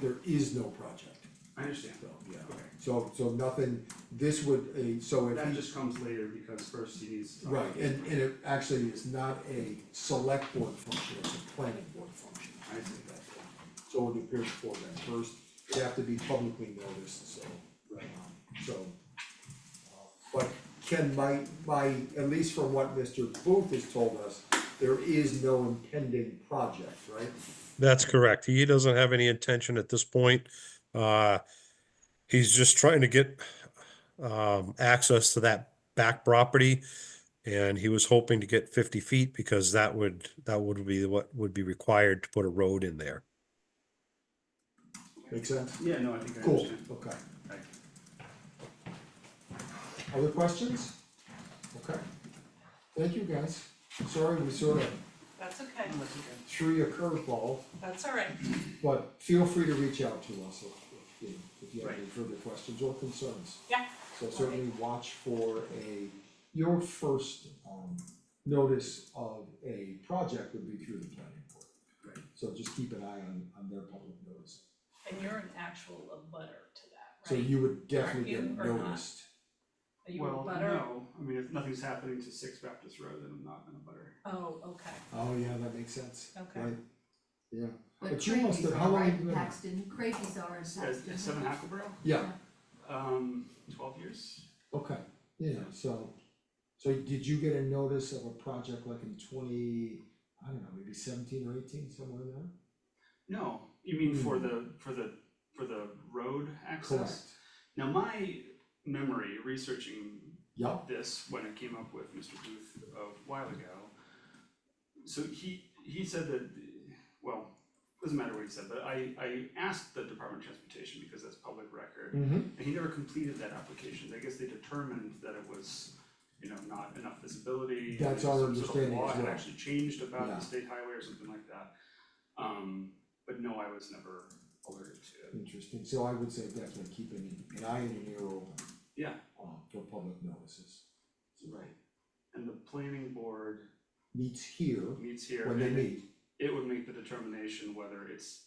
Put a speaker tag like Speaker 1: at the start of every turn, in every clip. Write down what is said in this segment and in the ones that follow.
Speaker 1: there is no project,
Speaker 2: I understand,
Speaker 1: so, yeah.
Speaker 2: okay.
Speaker 1: So, so nothing, this would, a, so if
Speaker 2: That
Speaker 1: he,
Speaker 2: just comes later because first he needs to. talk.
Speaker 1: right, and, and it actually is not a select board function, it's a planning board function.
Speaker 2: I see.
Speaker 1: So it would appear before that first, it'd have to be publicly noticed, so. um,
Speaker 2: Right.
Speaker 1: So. uh, But Ken, my, my, at least from what Mr. Booth has told us, there is no impending project, right?
Speaker 3: That's correct. He doesn't have any intention at this point. Uh, he's just trying to get um, access to that back property. And he was hoping to get fifty feet because that would, that would be what would be required to put a road in there.
Speaker 1: Make sense?
Speaker 2: Yeah, no, I think I
Speaker 1: Cool,
Speaker 2: understand.
Speaker 1: okay.
Speaker 2: Okay.
Speaker 1: Other questions? Okay. Thank you, guys. Sorry we sort of
Speaker 4: That's okay,
Speaker 1: threw you a curveball,
Speaker 4: that's all right.
Speaker 1: but feel free to reach out to us if, if you, if you have any
Speaker 2: Right.
Speaker 1: further questions or concerns.
Speaker 4: Yeah.
Speaker 1: So certainly watch for a, your first, um, notice of a project would be through the planning board.
Speaker 2: Right.
Speaker 1: So just keep an eye on, on their public notice.
Speaker 4: And you're an actual abutter to that,
Speaker 1: So
Speaker 4: right?
Speaker 1: you would definitely
Speaker 4: you
Speaker 1: get
Speaker 4: or not?
Speaker 1: noticed.
Speaker 4: Are you a
Speaker 2: Well,
Speaker 4: butter?
Speaker 2: no, I mean, if nothing's happening to Six Baptist Road, then I'm not gonna butter.
Speaker 4: Oh, okay,
Speaker 1: Oh, yeah, that makes sense.
Speaker 4: Okay.
Speaker 1: Right? Yeah,
Speaker 5: But
Speaker 1: But you must
Speaker 5: Craigie's
Speaker 1: have- how long
Speaker 5: are
Speaker 1: have you
Speaker 5: in
Speaker 1: been-
Speaker 5: Paxton, Craigie's are in
Speaker 2: At,
Speaker 5: Paxton.
Speaker 2: at Seven Hackleboro,
Speaker 1: yeah,
Speaker 2: um, twelve years?
Speaker 1: Okay, yeah, so, so did you get a notice of a project like in twenty, I don't know, maybe seventeen or eighteen, somewhere in there?
Speaker 2: No, you mean for
Speaker 1: Hmm.
Speaker 2: the, for the, for the road access? Now, my memory researching
Speaker 1: Yup,
Speaker 2: this when it came up with Mr. Booth a while ago. So he, he said that, well, doesn't matter what he said, but I, I asked the Department of Transportation because that's public record.
Speaker 1: Mhm.
Speaker 2: And he never completed that application. I guess they determined that it was, you know, not enough visibility.
Speaker 1: That's
Speaker 2: and
Speaker 1: our
Speaker 2: some sort of
Speaker 1: understanding
Speaker 2: law
Speaker 1: as
Speaker 2: had
Speaker 1: well.
Speaker 2: actually changed about
Speaker 1: Yeah.
Speaker 2: the state highway or something like that. Um, but no, I was never alerted to it.
Speaker 1: interesting, so I would say definitely keep an, an eye and an ear open,
Speaker 2: Yeah,
Speaker 1: um, for public notices.
Speaker 2: right. And the planning board
Speaker 1: Meets here
Speaker 2: meets here.
Speaker 1: when they
Speaker 2: and
Speaker 1: meet,
Speaker 2: it would make the determination whether it's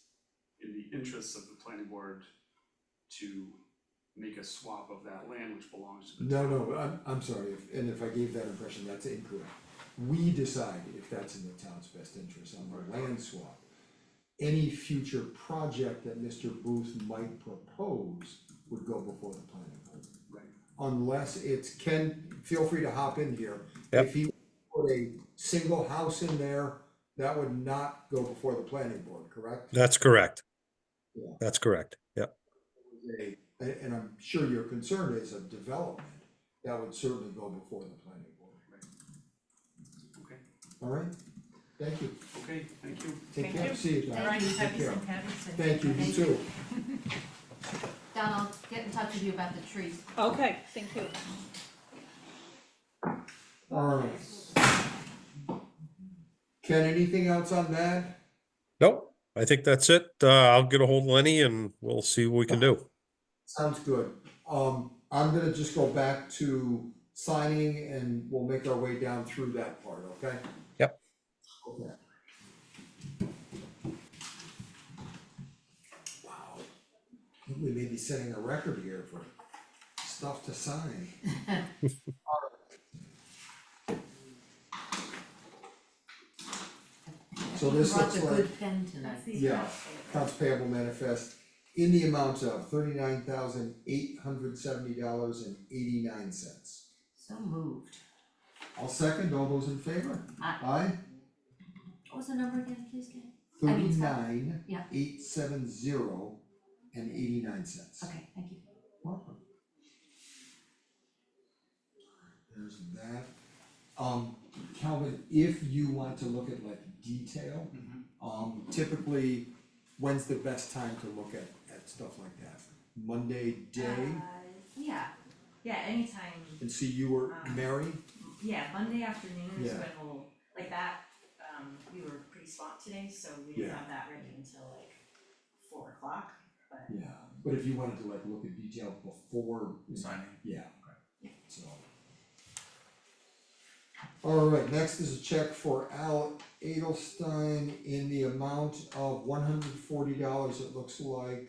Speaker 2: in the interests of the planning board to make a swap of that land which belongs to the
Speaker 1: no,
Speaker 2: town.
Speaker 1: no, I'm, I'm sorry, if, and if I gave that impression, that's incorrect. We decide if that's in the town's best interest on the land swap. Any future project that Mr. Booth might propose would go before the planning board.
Speaker 2: Right,
Speaker 1: unless it's, Ken, feel free to hop in here.
Speaker 3: Yep.
Speaker 1: If he put a single house in there, that would not go before the planning board, correct?
Speaker 3: That's correct.
Speaker 1: Yeah.
Speaker 3: That's correct. Yep.
Speaker 1: A- And, I'm sure your concern is a development, that would certainly go before the planning board,
Speaker 2: okay,
Speaker 1: all right? Thank you,
Speaker 2: okay, thank you.
Speaker 1: take
Speaker 4: Thank
Speaker 1: care,
Speaker 4: you.
Speaker 1: see you
Speaker 4: all
Speaker 1: guys,
Speaker 4: right,
Speaker 1: take
Speaker 4: happy
Speaker 1: care.
Speaker 4: and happy and.
Speaker 1: Thank you, you
Speaker 5: Thank
Speaker 1: too,
Speaker 5: Don, I'll get in touch with you about the trees.
Speaker 4: Okay, thank you.
Speaker 1: all right. Ken, anything else on that?
Speaker 3: Nope. I think that's it. Uh, I'll get a hold of Lenny and we'll see what we can do.
Speaker 1: Sounds good. Um, I'm gonna just go back to signing and we'll make our way down through that part, okay?
Speaker 3: Yep.
Speaker 1: Okay. Wow, I think we may be setting a record here for stuff to sign. So this
Speaker 5: Brought the
Speaker 1: looks like-
Speaker 5: good pen tonight.
Speaker 1: Yeah, accounts payable manifest in the amount of thirty-nine thousand eight hundred seventy dollars and eighty-nine cents.
Speaker 5: So moved.
Speaker 1: I'll second, all those in favor?
Speaker 5: Aye.
Speaker 1: Aye,
Speaker 5: What was the number again, please, Kate? I mean, it's not-
Speaker 1: thirty-nine,
Speaker 5: yeah.
Speaker 1: eight seven zero and eighty-nine cents.
Speaker 5: Okay, thank you.
Speaker 1: Welcome. There's that. Um, Calvin, if you want to look at like detail, um, typically, when's the best time to look at, at stuff like that? Monday day,
Speaker 6: Yeah, yeah, anytime,
Speaker 1: and see you were Mary,
Speaker 6: yeah, Monday afternoon is
Speaker 1: Yeah.
Speaker 6: when we'll, like that, um, we were pretty swamped today, so we didn't
Speaker 1: Yeah.
Speaker 6: have that ready until like four o'clock, but.
Speaker 1: yeah, but if you wanted to like look at detail before. Signing. Yeah, so. Alright, next is a check for Al Edelstein in the amount of one hundred forty dollars, it looks like.